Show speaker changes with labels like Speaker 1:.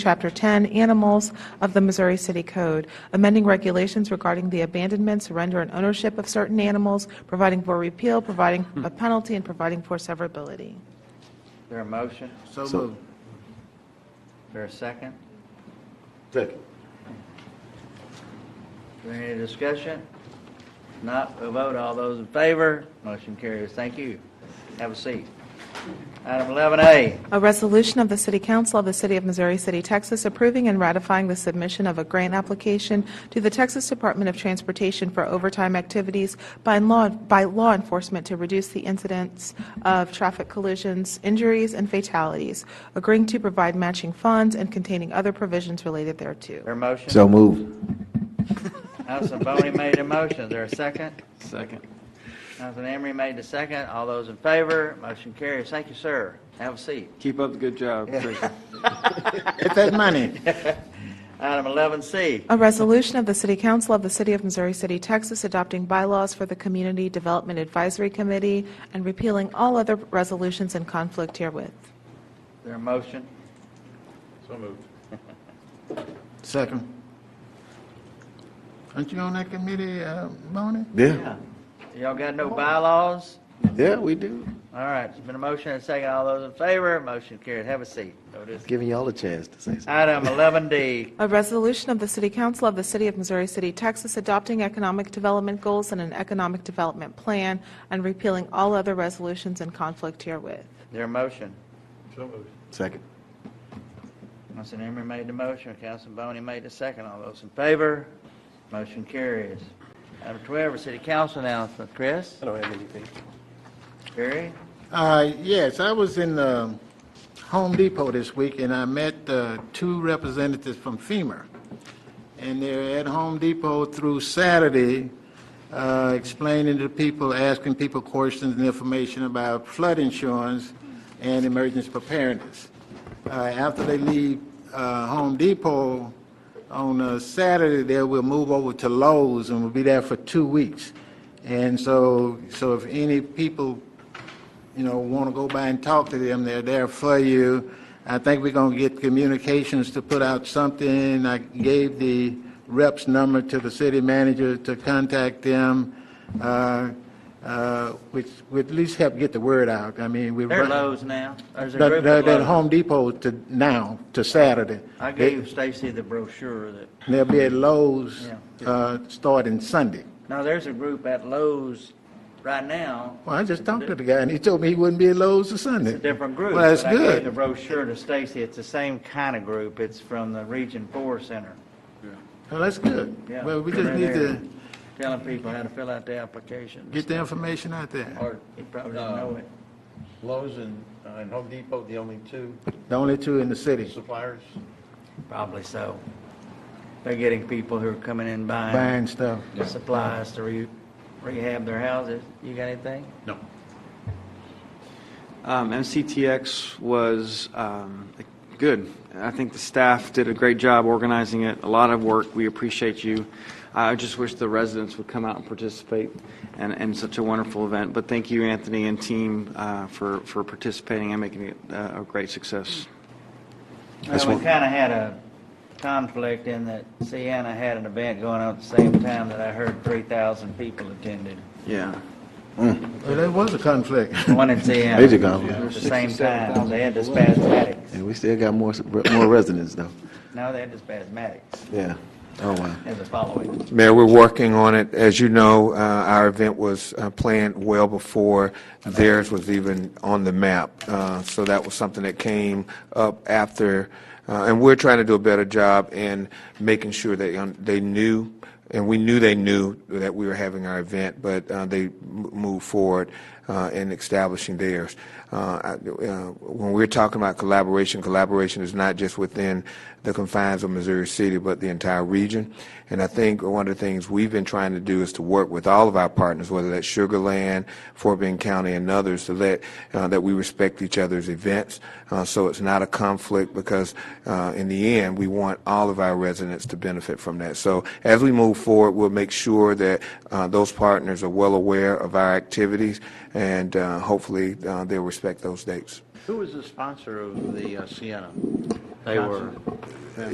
Speaker 1: Chapter 10, Animals of the Missouri City Code, amending regulations regarding the abandonment, surrender, and ownership of certain animals, providing for repeal, providing a penalty, and providing for severability.
Speaker 2: There a motion?
Speaker 3: So moved.
Speaker 2: There a second?
Speaker 3: Second.
Speaker 2: Is there any discussion? Not a vote. All those in favor? Motion carries. Thank you. Have a seat. Item 11A,
Speaker 1: A resolution of the City Council of the City of Missouri City, Texas, approving and ratifying the submission of a grant application to the Texas Department of Transportation for overtime activities by law, by law enforcement to reduce the incidence of traffic collisions, injuries, and fatalities, agreeing to provide matching funds and containing other provisions related thereto.
Speaker 2: there a motion?
Speaker 4: So move.
Speaker 2: Councilman Boney made a motion. Is there a second?
Speaker 3: Second.
Speaker 2: Councilman Emery made the second. All those in favor? Motion carries. Thank you, sir. Have a seat.
Speaker 5: Keep up the good job, Tricia.
Speaker 3: Get that money.
Speaker 2: Item 11C,
Speaker 1: A resolution of the City Council of the City of Missouri City, Texas, adopting bylaws for the Community Development Advisory Committee and repealing all other resolutions in conflict herewith.
Speaker 2: there a motion?
Speaker 3: Second. Aren't you on that committee, uh, Bonnie?
Speaker 4: Yeah,
Speaker 2: Y'all got no bylaws?
Speaker 4: yeah, we do.
Speaker 2: All right, it's been a motion and a second. All those in favor? Motion carries. Have a seat. Vote is-
Speaker 4: Giving y'all a chance to say something.
Speaker 2: Item 11D,
Speaker 1: A resolution of the City Council of the City of Missouri City, Texas, adopting economic development goals and an economic development plan and repealing all other resolutions in conflict herewith.
Speaker 2: there a motion?
Speaker 4: Second.
Speaker 2: Councilman Emery made the motion, Councilman Boney made the second. All those in favor? Motion carries. Item 12, is city council announcement. Chris? I don't have anything. Barry?
Speaker 3: Uh, yes, I was in, um, Home Depot this week and I met, uh, two representatives from FEMA. And they're at Home Depot through Saturday, uh, explaining to people, asking people questions and information about flood insurance and emergency preparedness. Uh, after they leave, uh, Home Depot on, uh, Saturday, they will move over to Lowe's and will be there for two weeks. And so, so if any people you know, want to go by and talk to them, they're there for you. I think we're going to get communications to put out something. I gave the rep's number to the city manager to contact them, uh, uh, which would at least help get the word out. I mean, we.
Speaker 2: They're Lowe's now. There's a group
Speaker 3: They're
Speaker 2: of
Speaker 3: they're at
Speaker 2: Lowe's.
Speaker 3: Home Depot to, now, to Saturday.
Speaker 2: I gave Stacy the brochure that,
Speaker 3: They'll be at Lowe's
Speaker 2: Yeah.
Speaker 3: uh, starting Sunday.
Speaker 2: now, there's a group at Lowe's right now.
Speaker 3: Well, I just talked to the guy, and he told me he wouldn't be at Lowe's till Sunday.
Speaker 2: It's a different group.
Speaker 3: Well, that's
Speaker 2: but I gave the
Speaker 3: good.
Speaker 2: brochure to Stacy. It's the same kind of group. It's from the Region 4 Center.
Speaker 3: Well, Oh, that's good.
Speaker 2: Yeah.
Speaker 3: Well, we just
Speaker 2: They're
Speaker 3: need
Speaker 2: there
Speaker 3: to
Speaker 2: Telling people how to fill out their application.
Speaker 3: get the information out there.
Speaker 6: Are
Speaker 2: He probably didn't know it.
Speaker 6: Lowe's and, uh, and Home Depot the only two
Speaker 3: The only two in the city.
Speaker 6: suppliers?
Speaker 2: Probably so. They're getting people who are coming in buying
Speaker 3: Buying stuff.
Speaker 2: supplies to re- rehab their houses. You got anything?
Speaker 6: No.
Speaker 5: Um, MCTX was um, good. I think the staff did a great job organizing it, a lot of work. We appreciate you. I just wish the residents would come out and participate in, in such a wonderful event. But thank you, Anthony and team, uh, for, for participating and making it uh, a great success.
Speaker 2: Well, we kind of had a conflict in that Sienna had an event going on at the same time that I heard 3,000 people attended.
Speaker 5: Yeah.
Speaker 3: Well, there was a conflict.
Speaker 2: The One in Sienna.
Speaker 4: Major conflict.
Speaker 2: At the same time. They had the spasmatics.
Speaker 4: And we still got more, more residents though.
Speaker 2: No, they had the spasmatics
Speaker 4: Yeah. Oh, wow.
Speaker 2: as a following.
Speaker 7: Mayor, we're working on it. As you know, uh, our event was uh, planned well before theirs was even on the map. Uh, So that was something that came up after, uh, and we're trying to do a better job in making sure that um, they knew, and we knew they knew that we were having our event, but uh, they m- moved forward uh, in establishing theirs. Uh, I- uh, When we're talking about collaboration, collaboration is not just within the confines of Missouri City, but the entire region. And I think one of the things we've been trying to do is to work with all of our partners, whether that's Sugar Land, Fort Bend County, and others, to let, uh, that we respect each other's events, uh, so it's not a conflict, because uh, in the end, we want all of our residents to benefit from that. So as we move forward, we'll make sure that uh, those partners are well aware of our activities, and uh, hopefully, uh, they'll respect those dates.
Speaker 6: Who was the sponsor of the uh, Sienna?
Speaker 4: They were.